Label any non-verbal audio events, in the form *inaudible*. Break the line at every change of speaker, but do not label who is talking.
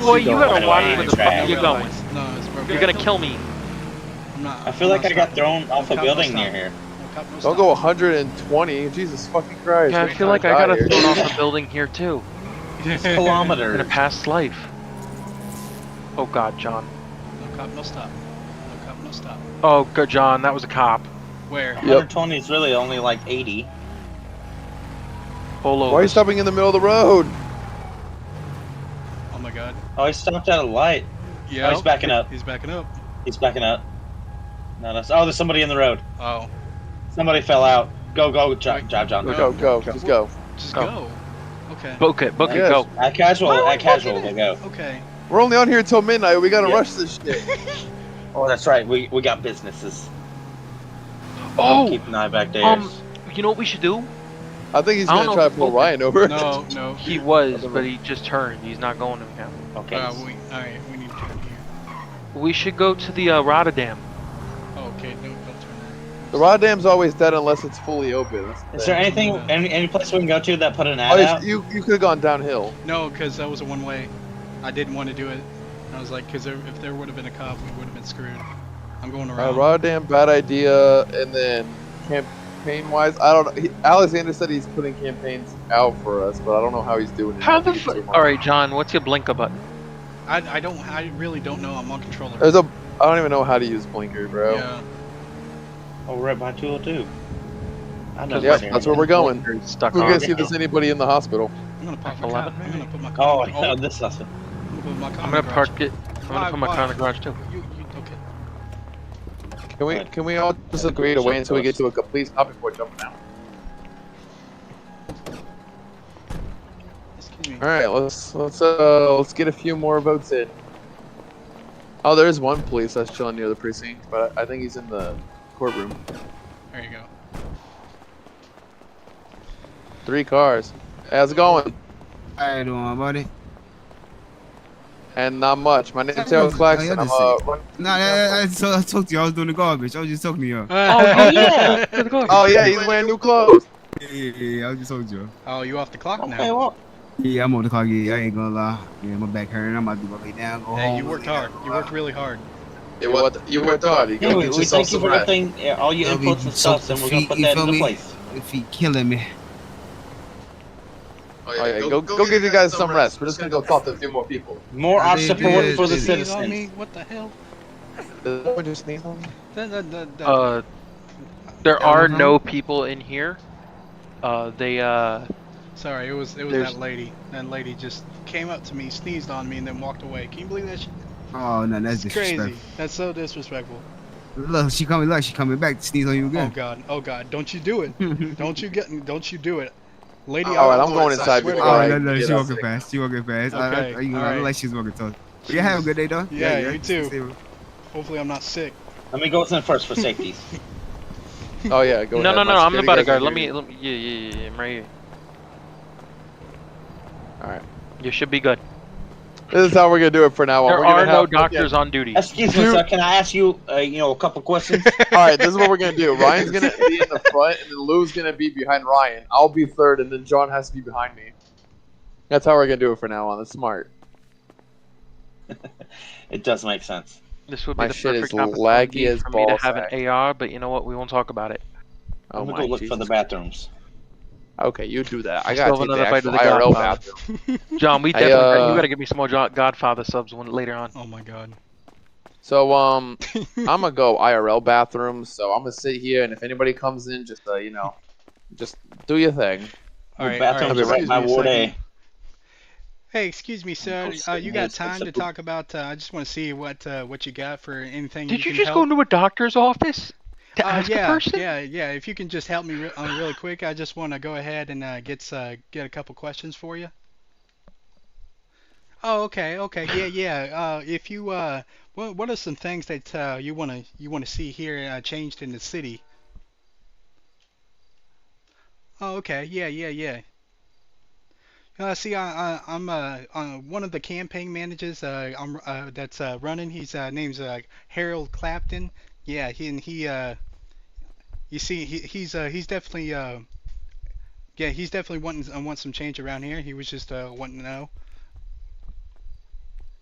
Boy, you
going
gotta
right
watch
away
where
and
the
try
fuck
out.
you're going.
No, it's perfect.
You're gonna kill me.
I'm not,
I feel
I'm
like
not
I got
stopping.
thrown off a
No cop, no
building
stop.
near here.
No cop, no
Don't
stop.
go 120. Jesus fucking Christ.
Yeah, I
we
feel
kinda
like I got
died here.
thrown off a building here too in a
*laughs*
Kilometers.
past life. Oh God, John.
No cop, no stop. No cop, no stop.
Oh God, John, that was a cop.
Where?
120 is really only like 80.
Pull
Why are
over.
you stopping in the middle of the road?
Oh my god.
Oh, he stopped at a light.
Yeah.
Oh, he's backing up.
He's backing up.
He's backing up. Not us. Oh, there's somebody in the road.
Oh.
Somebody fell out. Go, go, jo-
Right.
drive, John.
Go,
No.
go, go. Just go.
Just
Go.
go. Okay.
Book it, book it,
Yes.
go.
At casual,
Why are we
at casual,
fucking-
we'll go.
*laughs*
Okay.
We're only on here until midnight. We gotta
Yeah.
rush this shit.
Oh, that's right. We, we got businesses.
Oh,
Keep an eye back there.
um, you know what we should do?
I think he's
I don't
gonna
know
try
if
to pull
it's
Ryan over.
No, no.
He was, but he just turned. He's not going to him.
okay.
Uh, we, all right, we need to turn here.
We should go to the uh, Rotterdam.
Oh, okay, no, don't turn.
*laughs* The rod dam's always dead unless it's fully open. That's the
is
thing.
there anything, any, any place we can go to that put an
Oh,
ad
it's-
out?
you you could have gone downhill.
No, because that was a one-way. I didn't want to do it. I was like, because if there would have been a cop, we would have been screwed. I'm going
Uh,
around.
rod dam, bad idea. And then campaign wise, I don't. know. He, Alexander said he's putting campaigns out for us, but I don't know how he's doing it.
How the fu- All right, John, what's your blinker button?
I, I don't, I really don't know. I'm on controller.
There's a. I don't even know how to use blinker, bro.
yeah.
Oh, we're at by 202. I know.
Yep,
this area.
that's where we're going.
Blinker's Stuck
We're
on.
gonna see if there's anybody in the hospital.
I'm gonna pop my car.
Eleven.
I'm gonna put my
Oh,
car.
I know this is
I'm gonna put my car.
I'm
in
gonna
the
park it. I'm gonna
Why-
put my car in the
why?
garage too.
garage. You, you, okay.
Can we
Right.
can we all just
Yeah,
agree to wait until we get
close.
to a complete stop before jumping out?
Excuse me.
All right, let's let's uh let's get a few more votes in. Oh, there is one police that's chilling near the precinct, but I think he's in the courtroom.
There you go.
Three cars. Hey, how's it going?
How you doing, buddy?
And not much. My name's
Hey,
Taylor Claxton.
how
I'm *laughs*
you
uh,
Nah, I, I, I, so- I talked to you. I was doing the garbage. I was just talking to you.
*laughs*
Oh yeah. to the garage.
Oh yeah, he's wearing new clothes.
Yeah, yeah, yeah. I was just talking to you.
Oh, you off the clock
Okay,
now?
well,
Yeah, I'm on the car. Yeah, I ain't gonna lie. Yeah, my back hurting. I'm about to go lay down. Go
Hey,
home.
you worked hard. You worked really hard.
You what? You were thought. You
yeah,
go
we,
get
we thank
yourself
you
some
for
rest.
everything, yeah, all your
Yeah, we
inputs and stuff, and
soaked the
we're gonna
feet,
put
you
that
feel
into
me?
place.
If he killing me.
Oh, yeah, go, go, give you guys some rest. We're just gonna go talk to a few more people.
More
I
our
mean,
support
yeah,
for the
it is.
Sneeze on me?
citizens.
What the hell?
Does anyone just sneeze *laughs* on me?
Da- da- da- da-
Uh, there
Yeah,
are
mhm.
no people in here. Uh, they uh,
Sorry, it was it was
There's-
that lady. That lady just came up to me, sneezed on me, and then walked away. Can you believe that? Shit?
Oh no, that's
It's crazy.
disrespectful.
That's so disrespectful.
Look, she coming. Look, she coming back to sneeze on you
Oh
again.
god. Oh god. Don't you do it.
*laughs*
Don't you get. Don't you do it, lady.
All right,
I-
I'm going
I
inside
swear to
before
God.
I
no, no,
get
Oh, she
out
walking
sick.
fast. She walking fast.
Okay,
I, I, you know, I
alright.
look like she's walking tough. But you have a good day though.
Yeah, you too.
stay-
Hopefully, I'm not sick.
Let me go in first for
*laughs*
safety.
Oh yeah, go.
no,
ahead.
no,
My
no. I'm the
security
bodyguard.
guys are
Let me,
here.
let me. Yeah, yeah, yeah. yeah, I'm right here.
All right.
You should be good.
This is how we're gonna do it for now. on.
There
We're gonna
are no
have- okay.
doctors on duty.
Excuse me,
Dude.
sir. Can I ask you, uh, you know, a couple
*laughs*
questions?
All right, this is what we're gonna do. Ryan's gonna be in the front, and then Lou's gonna be behind Ryan. I'll be third, and then John has to be behind me. That's how we're gonna do it for now on. That's smart.
it does make sense.
This would be
My
the
shit is
perfect opportunity
laggy as
for me to
ball
have
sack.
an AR, but you know what? We won't talk about it.
Oh
I'm
my
gonna go look for
Jesus.
the bathrooms.
Okay, you do that. I
Let's
gotta
go
take
another
the
bite of
actual
the
IRL
Godfather.
bathroom.
John, we
*laughs* I,
definitely
uh,
you gotta give me some more Jo- Godfather subs when later on.
*laughs* Oh my god.
So um,
*laughs*
I'm gonna go IRL bathroom. So I'm gonna sit here, and if anybody comes in, just uh, you know, just do your thing.
All right. all right.
bathrooms are right
Excuse
by
me a
Ward A.
second.
Hey, excuse me, sir.
Most-
Uh, you got
most
time to
acceptable-
talk about? Uh, I just want to see what uh, what you got for anything.
Did you
can
just
help.
go into a doctor's office to
Uh,
ask
yeah,
a person?
yeah, yeah. If you can just help me re- on really quick, I just want to go ahead and uh, get s- uh, get a couple questions for you. Oh, okay, okay,
*sighs*
yeah, yeah. Uh, if you uh, what what are some things that uh, you wanna you wanna see here uh, changed in the city? Oh, okay, yeah, yeah, yeah. Uh, see, I, I, I'm uh, uh, one of the campaign managers uh, I'm, uh, that's uh, running. His uh, name's uh, Harold Clapton. Yeah, he and he uh, you see, he, he's uh, he's definitely uh, yeah, he's definitely wanting uh, wants some change around here. He was just uh, wanting to know.